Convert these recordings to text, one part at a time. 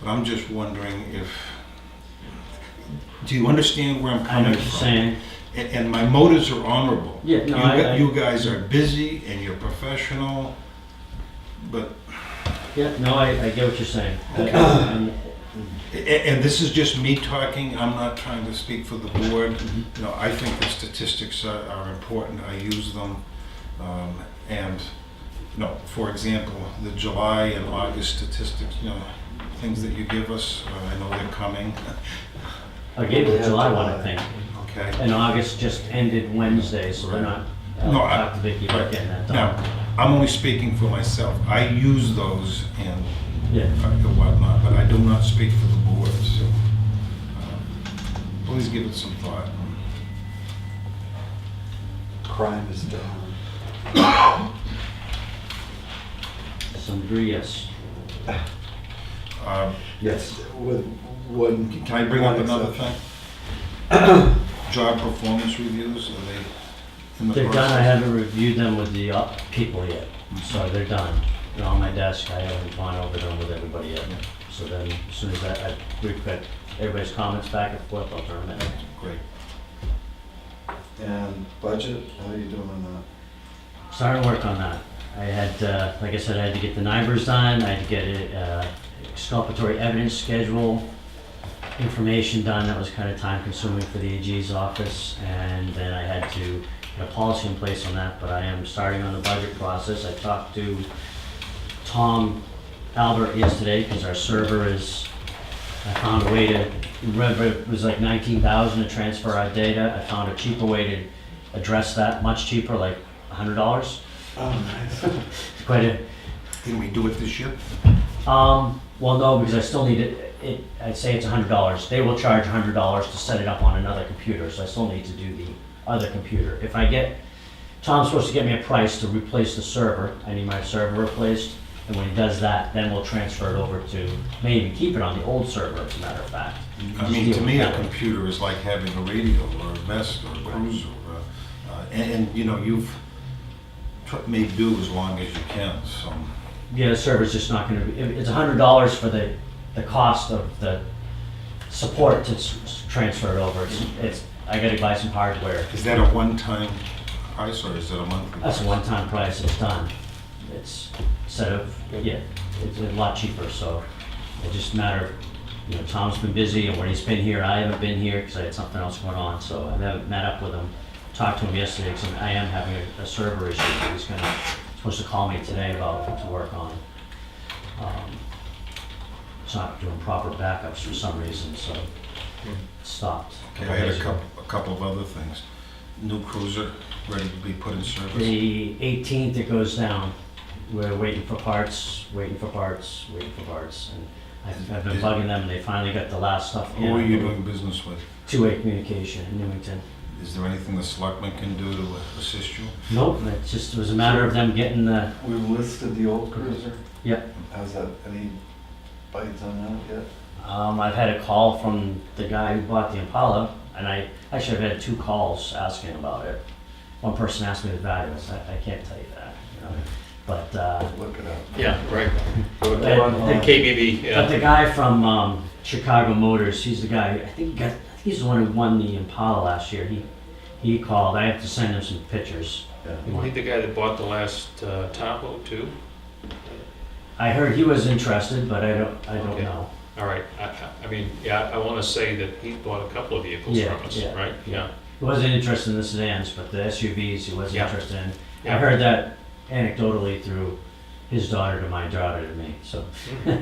But I'm just wondering if, do you understand where I'm I know coming what you're from? saying. And, and my motives are honorable. Yeah, You no, I- I- gu- you guys are busy and you're professional, but, Yeah, no, I, I get what you're saying. Okay. And- a- a- and this is just me talking, I'm not trying to speak for the board. You know, I think the statistics are, are important, I use them. Um, and, you know, for example, the July and August statistics, you know, things that you give us, uh, I know they're coming, I gave you the July one, I think. okay? And August just ended Wednesday, so they're not, I'll No, I- talk to Vicky about getting that Now, done. I'm only speaking for myself. I use those and Yeah. whatnot, but I do not speak for the board, so uh, please give it some thought. Crime is down. To some degree, yes. Uh, Yes, with one. Can I bring up one another thing? exception. Job performance reviews, are they in the They're done, I process? haven't reviewed them with the uh, people yet, so they're done. They're on my desk, I haven't gone over them with everybody yet. So then, as soon as I, I recut everybody's comments back and forth, I'll turn them in. Great. And budget, how are you doing on Starting work on that. I had, uh, like I said, I had to get the numbers done, I had to get it, uh, exculpatory evidence schedule, information done, that was kind of time consuming for the AG's office, and then I had to get a policy in place on that, but I am starting on the budget process. I talked to Tom Albert yesterday, because our server is, I found a way to, remember, it was like nineteen thousand to transfer our data, I found a cheaper way to address that, much cheaper, like hundred dollars. that? Oh, nice. Quite a, Can we do it this year? um, well, no, because I still need it, it, I'd say it's hundred dollars. They will charge hundred dollars to set it up on another computer, so I still need to do the other computer. If I get, Tom's supposed to get me a price to replace the server, I need my server replaced, and when he does that, then we'll transfer it over to, maybe keep it on the old server, as a matter of fact. I mean, to me, a computer is like having a radio or a vest or a cruiser. uh, uh, And, and, you know, you've tr- made do as long as you can, so. Yeah, the server's just not gonna be, it- it's a hundred dollars for the, the cost of the support to s- s- transfer it over. It's, it's, I gotta buy some hardware. Is that a one-time price or is that a monthly? That's a price? one-time price, it's done. It's, instead of, yeah, it's a lot cheaper, so it just a matter, of you know, Tom's been busy, and when he's been here, I haven't been here, because I had something else going on, so I haven't met up with him. Talked to him yesterday, because I am having a- a server issue, that he's gonna, supposed to call me today about, to work on. Um, It's not doing proper backups for some reason, so it stopped. Okay, I had a couple, a couple of other things. New cruiser, ready to be put in service. The 18th, it goes down. We're waiting for parts, waiting for parts, waiting for parts. And I've- I've been bugging them, and they finally got the last stuff in. Who are you doing business with? Two-way communication in Newington. Is there anything the selectmen can do to assist you? Nope, it just was a matter of them getting the, We listed the old cruiser. Yep. How's that, any bites on that yet? um, I've had a call from the guy who bought the Impala, and I, actually, I've had two calls asking about it. One person asked me the value, I said, I can't tell you that, you know, but, uh, Look it up. Yeah, right. Go That- online. KBB, But yeah. the guy from um, Chicago Motors, he's the guy. I think he got. I think he's the one who won the Impala last year. He he called. I have to send him some pictures. Yeah. He I think won. the guy that bought the last uh, Tahoe too. I heard he was interested, but I don't. I don't Okay. know. All right, I, I- I mean, yeah, I want to say that he bought a couple of vehicles Yeah, from us, yeah, right? yeah. He wasn't interested in the sedans, but the SUVs he was Yeah. interested in. I Yeah. heard that anecdotally through his daughter to my daughter to me. So Hmm.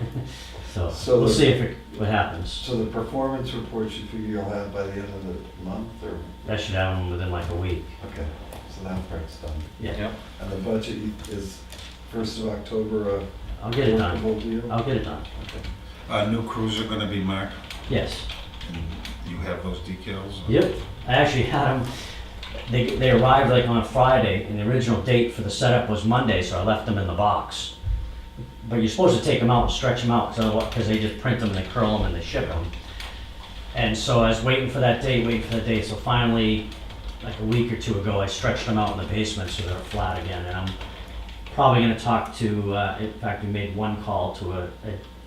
so, So we'll the- see if it, what happens. So the performance report you figure you'll have by the end of the month or, I should have him within like a week. okay, so that part's done. Yeah. Yeah. And the budget is first of October, a I'll get it done. Oh, workable deal? I'll get it done. Uh, new cruiser gonna be marked, Yes. and you have those decals? Yep, I actually had them, they, they arrived like on Friday, and the original date for the setup was Monday, so I left them in the box. But you're supposed to take them out and stretch them out, because they just print them and they curl them and they ship them. And so I was waiting for that date, waiting for that date, so finally, like a week or two ago, I stretched them out in the basement so they're flat again, and I'm probably gonna talk to, uh, in fact, we made one call to a, a